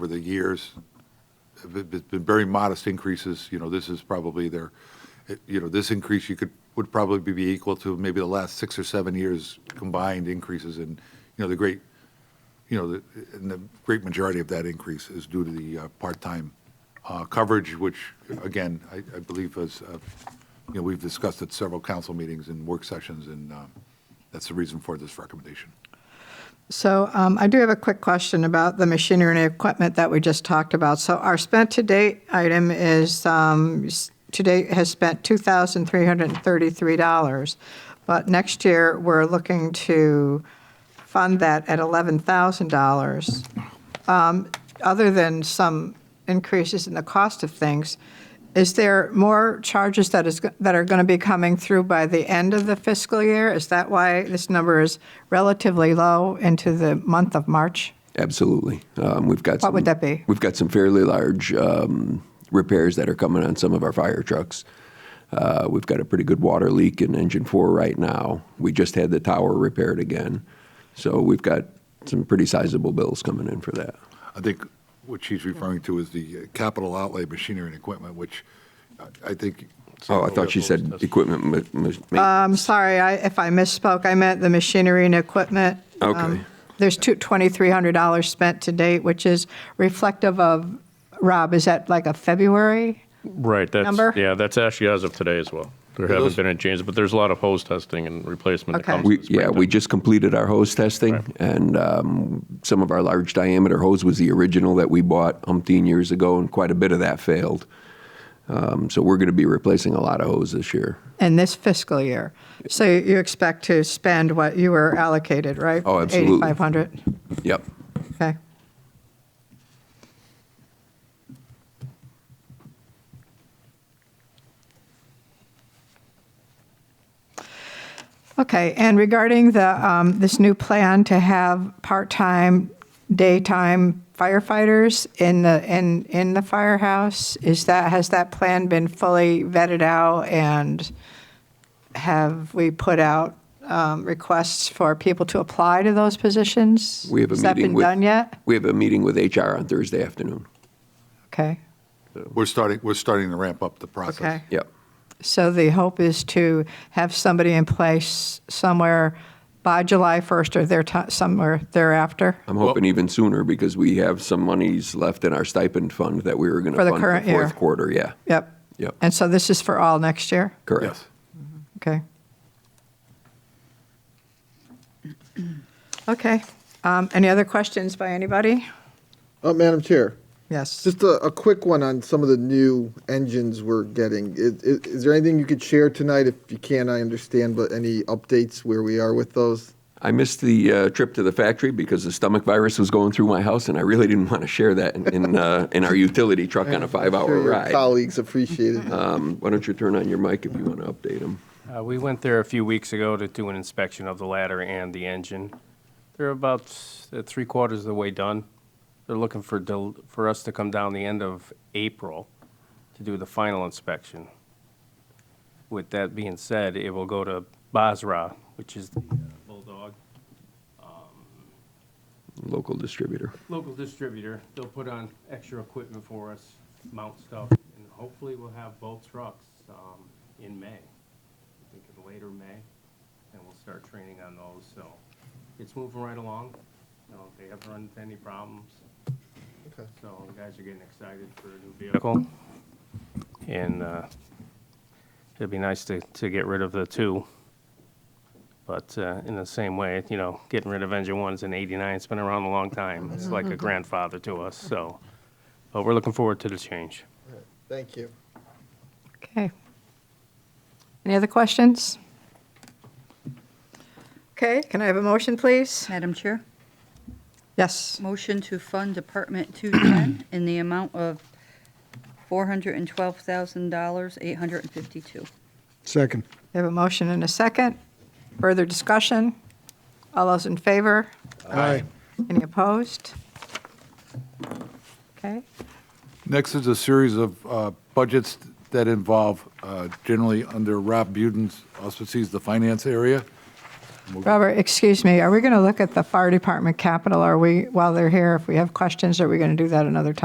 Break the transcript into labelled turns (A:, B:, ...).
A: over the years, have been been very modest increases, you know, this is probably their, you know, this increase you could, would probably be equal to maybe the last six or seven years combined increases in, you know, the great, you know, the- and the great majority of that increase is due to the uh, part-time uh, coverage, which, again, I I believe is, uh, you know, we've discussed at several council meetings and work sessions, and um, that's the reason for this recommendation.
B: So um, I do have a quick question about the machinery and equipment that we just talked about. So our spent-to-date item is, um, s- to date has spent $2,333. But next year, we're looking to fund that at $11,000 other than some increases in the cost of things, is there more charges that is, that are going to be coming through by the end of the fiscal year? Is that why this number is relatively low into the month of March?
C: Absolutely. Um, we've got
B: What would
C: some-
B: that be?
C: We've got some fairly large um, repairs that are coming on some of our fire trucks. Uh, we've got a pretty good water leak in engine four right now. We just had the tower repaired again, so we've got some pretty sizable bills coming in for that.
A: I think what she's referring to is the uh, capital outlay machinery and equipment, which I- I think.
C: Oh, I thought she said equipment. ma- ma- ma-
B: I'm Um, sorry, I, if I misspoke, I meant the machinery and equipment.
C: Okay.
B: Um, There's two, $2,300 spent to date, which is reflective of, Rob, is that like a February?
D: Right, that's,
B: Number?
D: yeah, that's actually as of today as well. There
A: So
D: haven't
A: those-
D: been any changes, but there's a lot of hose testing and replacement that
B: Okay.
D: comes.
C: we,
D: with
C: yeah, we
D: springtime.
C: just completed our hose testing,
D: Right.
C: and um, some of our large diameter hose was the original that we bought umpteen years ago, and quite a bit of that failed. Um, so we're going to be replacing a lot of hose this year.
B: in this fiscal year. So you expect to spend what you were allocated, right?
C: Oh, absolutely.
B: 8,500,
C: Yep.
B: okay. Okay, and regarding the, um, this new plan to have part-time daytime firefighters in the, in, in the firehouse, is that, has that plan been fully vetted out and have we put out um, requests for people to apply to those positions?
C: We have a
B: Has that
C: meeting
B: been
C: with,
B: done yet?
C: We have a meeting with HR on Thursday afternoon.
B: Okay,
A: We're starting, we're starting to ramp up the process.
B: okay.
C: Yep.
B: So the hope is to have somebody in place somewhere by July 1st or there, somewhere thereafter?
C: I'm hoping even sooner because we have some monies left in our stipend fund that we were going to
B: For the
C: fund
B: current
C: for fourth
B: year.
C: quarter. Yeah.
B: Yep.
C: Yep.
B: And so this is for all next year?
C: Correct.
A: Yes.
B: Okay. Okay. Um, Any other questions by anybody?
E: Uh, Madam Chair,
B: Yes.
E: just a, a quick one on some of the new engines we're getting. Is, is, is there anything you could share tonight? If you can, I understand, but any updates where we are with those?
C: I missed the uh, trip to the factory because the stomach virus was going through my house, and I really didn't want to share that in in, uh, in our utility truck on a
E: I'm
C: five-hour
E: sure your
C: ride.
E: Colleagues appreciate it.
C: Um, why don't you turn on your mic if you want to update them?
F: Uh, We went there a few weeks ago to do an inspection of the ladder and the engine. They're about s- uh, three quarters of the way done. They're looking for, del- for us to come down the end of April to do the final inspection. With that being said, it will go to Basra, which is the uh, Bulldog.
C: Local distributor.
F: local distributor, they'll put on extra equipment for us, mount stuff, and hopefully we'll have both trucks, um, in May. I think in later May, and we'll start training on those, so it's moving right along. You know, they haven't run into any problems.
E: Okay.
F: So the guys are getting excited for a new vehicle. And, uh, it'd be nice to, to get rid of the two. But uh, in the same way, you know, getting rid of engine ones in '89, it's been around a long time. It's like a grandfather to us, so. But we're looking forward to the change.
E: Thank you.
B: Okay. Any other questions? Okay, can I have a motion, please?
G: Madam Chair,
B: Yes.
G: motion to fund Department 210 in the amount of $412,852.
H: Second.
B: We have a motion and a second. Further discussion? All those in favor?
H: Aye.
B: Any opposed? Okay.
A: Next is a series of uh, budgets that involve, uh, generally under Rob Buden's auspices, the finance area.
B: Robert, excuse me, are we going to look at the fire department capital? Are we, while they're here, if we have questions, are we going to do that another time?